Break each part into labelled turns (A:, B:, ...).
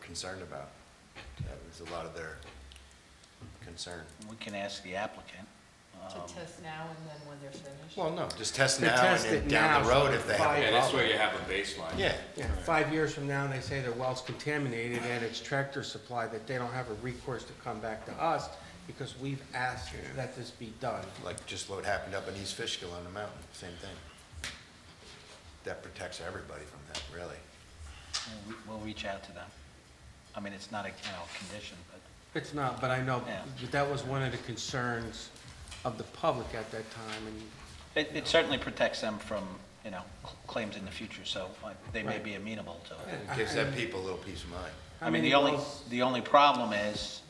A: concerned about. That was a lot of their concern.
B: We can ask the applicant.
C: To
B: um,
C: test now and then when they're finished?
A: Well, no, just test
D: To
A: now and
D: test
A: then
D: it
A: down the
D: now,
A: road if they have.
D: five-
E: Yeah, this way you have a baseline.
A: Yeah,
D: Yeah, five years from now, and they say their well's contaminated and it's Tractor Supply, that they don't have a recourse to come back to us because we've asked that this be done.
A: like just what happened up in East Fishkill on the mountain, same thing. That protects everybody from that, really.
B: we'll re- We'll reach out to them. I mean, it's not a, you know, condition, but
D: It's not, but I know,
B: Yeah.
D: but that was one of the concerns of the public at that time, and
B: it it certainly protects them from, you know, cl- claims in the future, so uh, they may be amenable to it.
A: It gives that people a little peace of mind.
D: how
B: I mean,
D: many
B: the only,
D: wells?
B: the only problem is,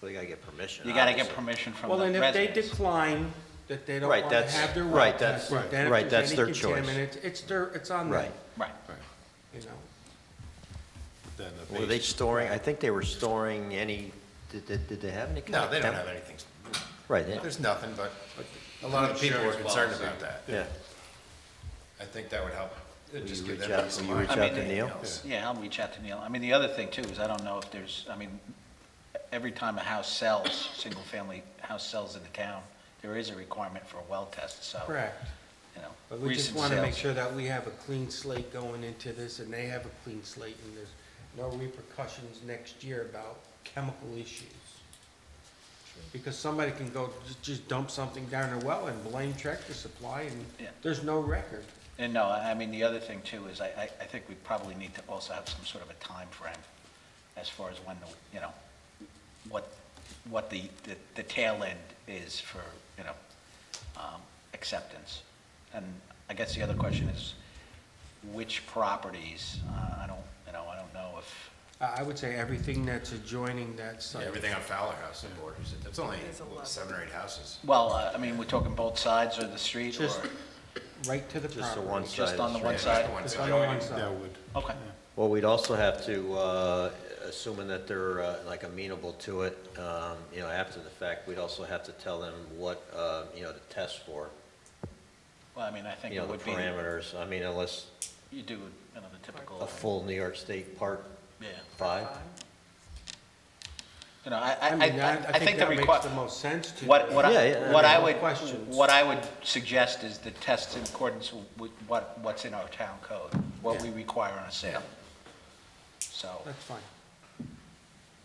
F: They gotta get permission.
B: you gotta get
F: obviously.
B: permission from the
D: Well, and
B: residents.
D: if they decline, that they don't
F: Right,
D: want to
F: that's-
D: have their well
F: right, that's-
D: tested, then if
F: right,
D: there's
F: that's
D: any
F: their choice.
D: contaminants, It's their, it's on them,
F: Right.
B: Right.
D: you know.
A: Then the
F: Were they
A: base-
F: storing, I think they were storing any, did, did did they have any? kind
A: No,
F: of
A: they don't
F: temp-
A: have anything.
F: Right, they-
A: There's nothing, but a lot of the people are
E: Insurance
A: concerned
E: policy.
A: about that.
F: yeah.
A: I think that would help. It'd
F: Will
A: just
F: you
A: give
F: reach
A: them
F: out-
A: peace
F: will
A: of
F: you
A: mind.
F: reach
B: I
F: out
B: mean,
F: to Neil?
B: Yeah, I'll reach out to Neil. I mean, the other thing too is I don't know if there's, I mean, every time a house sells, single-family house sells in the town, there is a requirement for a well test, so.
D: Correct.
B: You know.
D: But we just
B: recent
D: want to make
B: sales.
D: sure that we have a clean slate going into this, and they have a clean slate, and there's no repercussions next year about chemical issues. Because somebody can go, ju- just dump something down their well and blame Tractor Supply, and
B: Yeah.
D: there's no record.
B: And no, I I mean, the other thing too is I, I, I think we probably need to also have some sort of a time frame as far as when, the you know, what, what the, the- the tail end is for, you know, um, acceptance. And I guess the other question is, which properties, uh, I don't, you know, I don't know if,
D: I I would say everything that's adjoining that
A: Yeah,
D: site.
A: Everything on Fowler House and borders it. That's only
C: There's a lot.
A: seven or eight houses.
B: well, uh, I mean, we're talking both sides or the street or
D: Just right to the property.
F: Just the one side.
B: just on the
F: is
B: one
F: right.
B: side?
D: Just on the one side.
B: Okay,
F: Well, we'd also have to, uh, assuming that they're uh, like amenable to it, um, you know, after the fact, we'd also have to tell them what, uh, you know, to test for.
B: well, I mean, I think
F: You know,
B: it
F: the
B: would be,
F: parameters, I mean, unless
B: you do, you know, the typical.
F: a full New York State Part
B: Yeah.
F: Five.
B: You know, I, I,
D: I
B: I-
D: mean, I,
B: I think the
D: that makes
B: requirement.
D: the most sense to.
B: What, what
F: Yeah,
B: I,
F: yeah,
B: what
D: I
B: I
D: mean-
B: would,
D: Questions.
B: what I would suggest is the test in accordance with what, what's in our town code, what we require on a sale. So,
D: That's fine.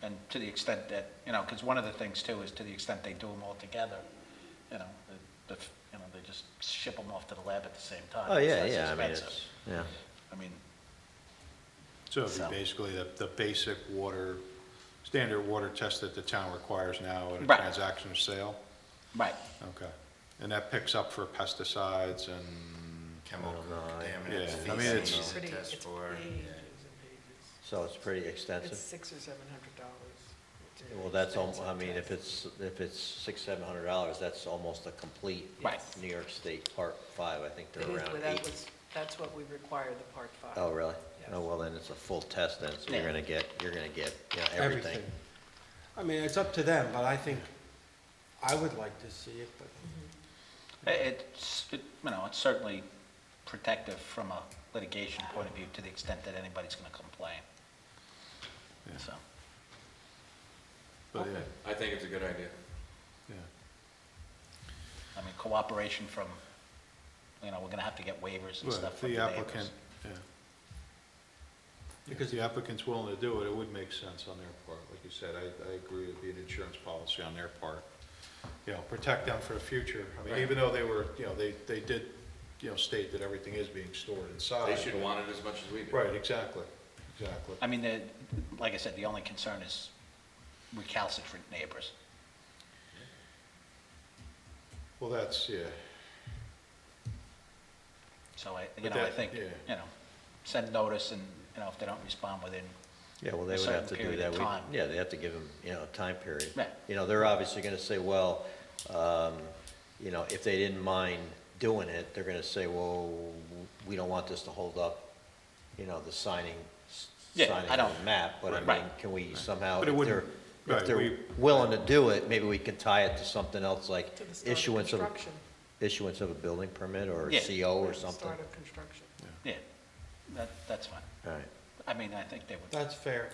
B: and to the extent that, you know, because one of the things too is to the extent they do them all together, you know, the, the- you know, they just ship them off to the lab at the same time.
F: Oh,
B: It's
F: yeah,
B: less
F: yeah, I mean,
B: expensive.
F: it's, yeah.
B: I mean,
G: So it'd
B: So-
G: be basically the, the basic water, standard water test that the town requires now at a
B: Right.
G: transaction or sale?
B: right,
G: Okay. And that picks up for pesticides and,
A: Chemical contaminants,
G: Yeah, I mean, it's-
A: feces, it tests for.
F: So it's pretty extensive.
C: It's six or seven hundred dollars.
F: Well, that's, al- I mean, if it's, if it's six, seven hundred dollars, that's almost a complete
B: Right.
F: New York State Part Five, I think
C: It
F: they're
C: is,
F: around
C: but that
F: eight.
C: was, that's what we require the part five.
F: Oh, really?
C: Yes.
F: Oh, well, then it's a full test then, so you're
B: Yeah.
F: gonna get, you're gonna get, you know, everything.
D: I mean, it's up to them, but I think, I would like to see it, but
B: it's, it- you know, it's certainly protective from a litigation point of view to the extent that anybody's gonna complain.
G: Yeah.
B: So,
G: but yeah,
E: I think it's a good idea.
G: yeah.
B: I mean, cooperation from, you know, we're gonna have to get waivers and
G: Well,
B: stuff
G: if
B: from
G: the
B: the
G: applicant,
B: neighbors.
G: yeah. If
D: Because-
G: the applicant's willing to do it, it would make sense on their part. Like you said, I, I agree it'd be an insurance policy on their part. You know, protect them for the future. I mean, even though they were, you know, they, they did, you know, state that everything is being stored inside.
E: They should want it as much as we do.
G: Right, exactly, exactly.
B: I mean, the, like I said, the only concern is recalcitrant neighbors.
G: Well, that's, yeah,
B: So I, you
G: But
B: know, I
G: that-
B: think,
G: yeah.
B: you know, send notice and, you know, if they don't respond within,
F: Yeah, well,
B: A
F: they would
B: certain
F: have to do
B: period
F: that.
B: of
F: We-
B: time.
F: Yeah, they have to give them, you know, a time period.
B: Right.
F: You know, they're obviously gonna say, well, um, you know, if they didn't mind doing it, they're gonna say, well, we don't want this to hold up, you know, the signing, s-
B: Yeah,
F: signing
B: I
F: of
B: don't-
F: the map, but I
B: Right.
F: mean, can we somehow,
G: But it
F: if they're,
G: wouldn't-
F: if
G: right,
F: they're
G: we-
F: willing to do it, maybe we can tie it to something else, like
C: To the start of
F: issuance of,
C: construction.
F: issuance of a building permit or
B: Yeah.
F: CO or
C: The
F: something.
C: Start of construction.
B: yeah, that, that's fine.
F: All right.
B: I mean, I think they would.
D: that's fair.